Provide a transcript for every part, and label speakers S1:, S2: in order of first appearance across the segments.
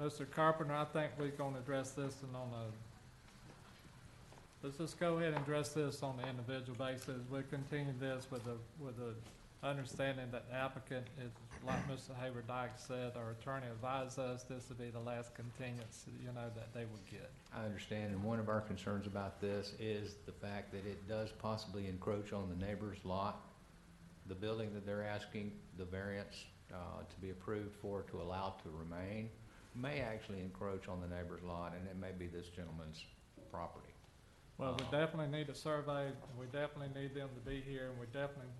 S1: Mr. Carpenter, I think we're gonna address this and on a, let's just go ahead and address this on the individual basis. We'll continue this with the, with the understanding that the applicant is, like Mr. Hayward Dyke said, our attorney advised us, this would be the last continuance, you know, that they would get.
S2: I understand, and one of our concerns about this is the fact that it does possibly encroach on the neighbor's lot. The building that they're asking the variance uh, to be approved for, to allow to remain, may actually encroach on the neighbor's lot, and it may be this gentleman's property.
S1: Well, we
S2: Uh-huh.
S1: definitely need a survey, and we definitely need them to be here, and we definitely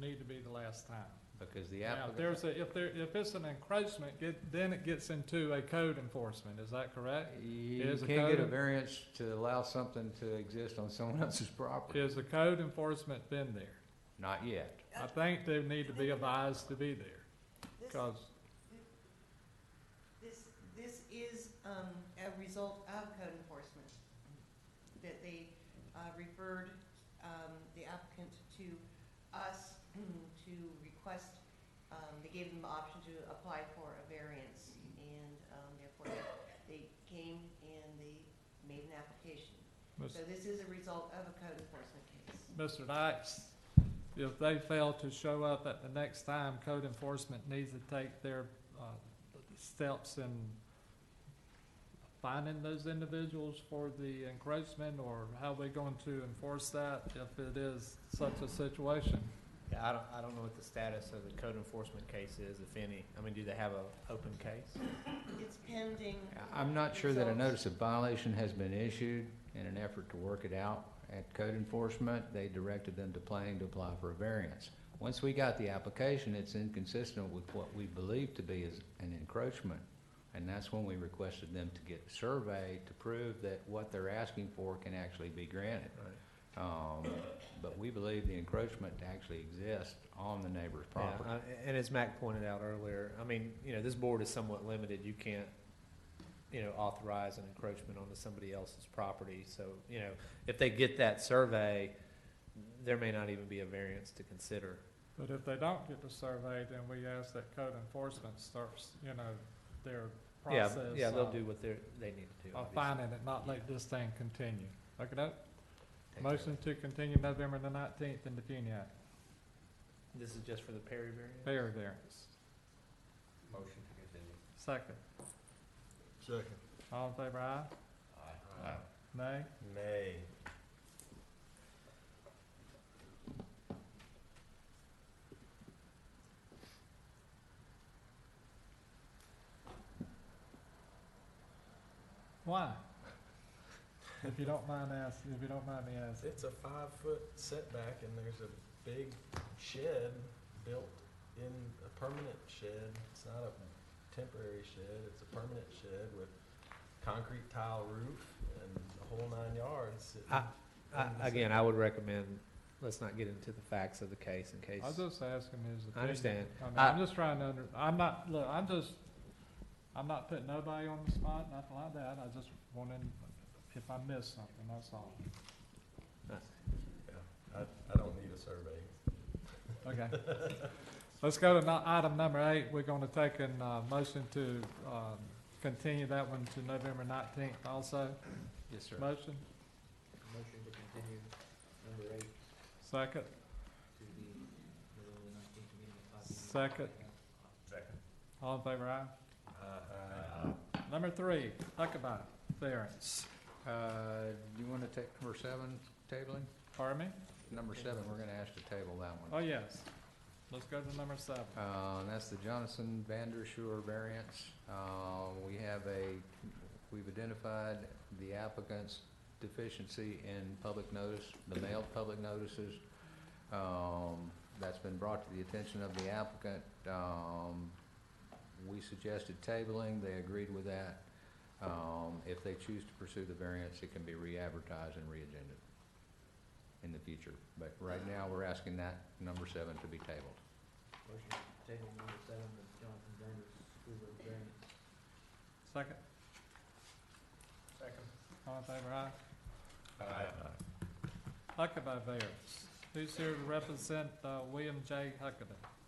S1: need to be the last time.
S2: Because the
S1: Now,
S2: applicant.
S1: if there's a, if there, if it's an encroachment, it, then it gets into a code enforcement, is that correct?
S2: You
S1: Is the
S2: can't get a
S1: code-
S2: variance to allow something to exist on someone else's property.
S1: Is the code enforcement been there?
S2: Not yet.
S1: I think they need to be advised to be there,
S3: This,
S1: cause,
S3: this, this is, um, a result of code enforcement, that they, uh, referred, um, the applicant to us mm, to request, um, they gave them the option to apply for a variance, and, um, therefore, they came and they made an application.
S1: Ms.
S3: So this is a result of a code enforcement case.
S1: Mr. Dykes, if they fail to show up at the next time, code enforcement needs to take their, uh, steps in finding those individuals for the encroachment, or how we going to enforce that if it is such a situation?
S4: Yeah, I don't, I don't know what the status of the code enforcement case is, if any. I mean, do they have a open case?
S3: It's pending,
S2: I'm not sure that a
S3: Results.
S2: notice of violation has been issued in an effort to work it out. At code enforcement, they directed them to planning to apply for a variance. Once we got the application, it's inconsistent with what we believe to be is an encroachment. And that's when we requested them to get a survey to prove that what they're asking for can actually be granted. Um, but we believe the encroachment to actually exist on the neighbor's
S4: Yeah,
S2: property.
S4: I- and as Mac pointed out earlier, I mean, you know, this board is somewhat limited. You can't, you know, authorize an encroachment onto somebody else's property. So, you know, if they get that survey, there may not even be a variance to consider.
S1: But if they don't get the survey, then we ask that code enforcement starts, you know, their
S4: Yeah,
S1: process.
S4: yeah, they'll
S1: of-
S4: do what they're, they need to do.
S1: Of
S4: obviously.
S1: finding it, not let this thing continue. Okay, that,
S2: Take care.
S1: motion to continue November the nineteenth in the Funiac,
S4: This is just for the Perry variance?
S1: fair variance.
S2: Motion to continue.
S1: Second,
S5: Second.
S1: all in favor, aye?
S2: Aye.
S1: Nay?
S5: Nay.
S1: Why? If you don't mind asking, if you don't mind me asking.
S5: It's a five-foot setback and there's a big shed built in, a permanent shed. It's not a temporary shed, it's a permanent shed with concrete tile roof and a whole nine yards. It-
S4: I- I, again, I would recommend, let's not get into the facts of the case in case.
S1: I was just asking his opinion.
S4: I understand.
S1: I mean,
S4: I-
S1: I'm just trying to under, I'm not, look, I'm just, I'm not putting nobody on the spot, nothing like that, I just wanted, if I missed something, that's all.
S5: Yeah, I, I don't need a survey.
S1: Okay. Let's go to no- item number eight, we're gonna take an, uh, motion to, um, continue that one to November nineteenth also.
S2: Yes, sir.
S1: Motion,
S6: Motion to continue number eight
S1: second,
S6: to the November nineteenth meeting at five P M.
S1: Second.
S5: Second.
S1: all in favor, aye? Number three, Huckabee variance,
S2: Uh, do you wanna take number seven, tabling?
S1: pardon me?
S2: Number seven, we're gonna ask to table that
S1: Oh,
S2: one.
S1: yes, let's go to number seven.
S2: Uh, and that's the Johnson Vanderschur variance. Uh, we have a, we've identified the applicant's deficiency in public notice, the mailed public notices. Um, that's been brought to the attention of the applicant. Um, we suggested tabling, they agreed with that. Um, if they choose to pursue the variance, it can be re-advertised and re-agended in the future. But right now, we're asking that number seven to be tabled.
S6: Motion to table number seven of Jonathan Vander Schuler variance.
S1: Second,
S5: Second.
S1: all in favor, aye? Huckabee variance, who's here to represent, uh, William J. Huckabee?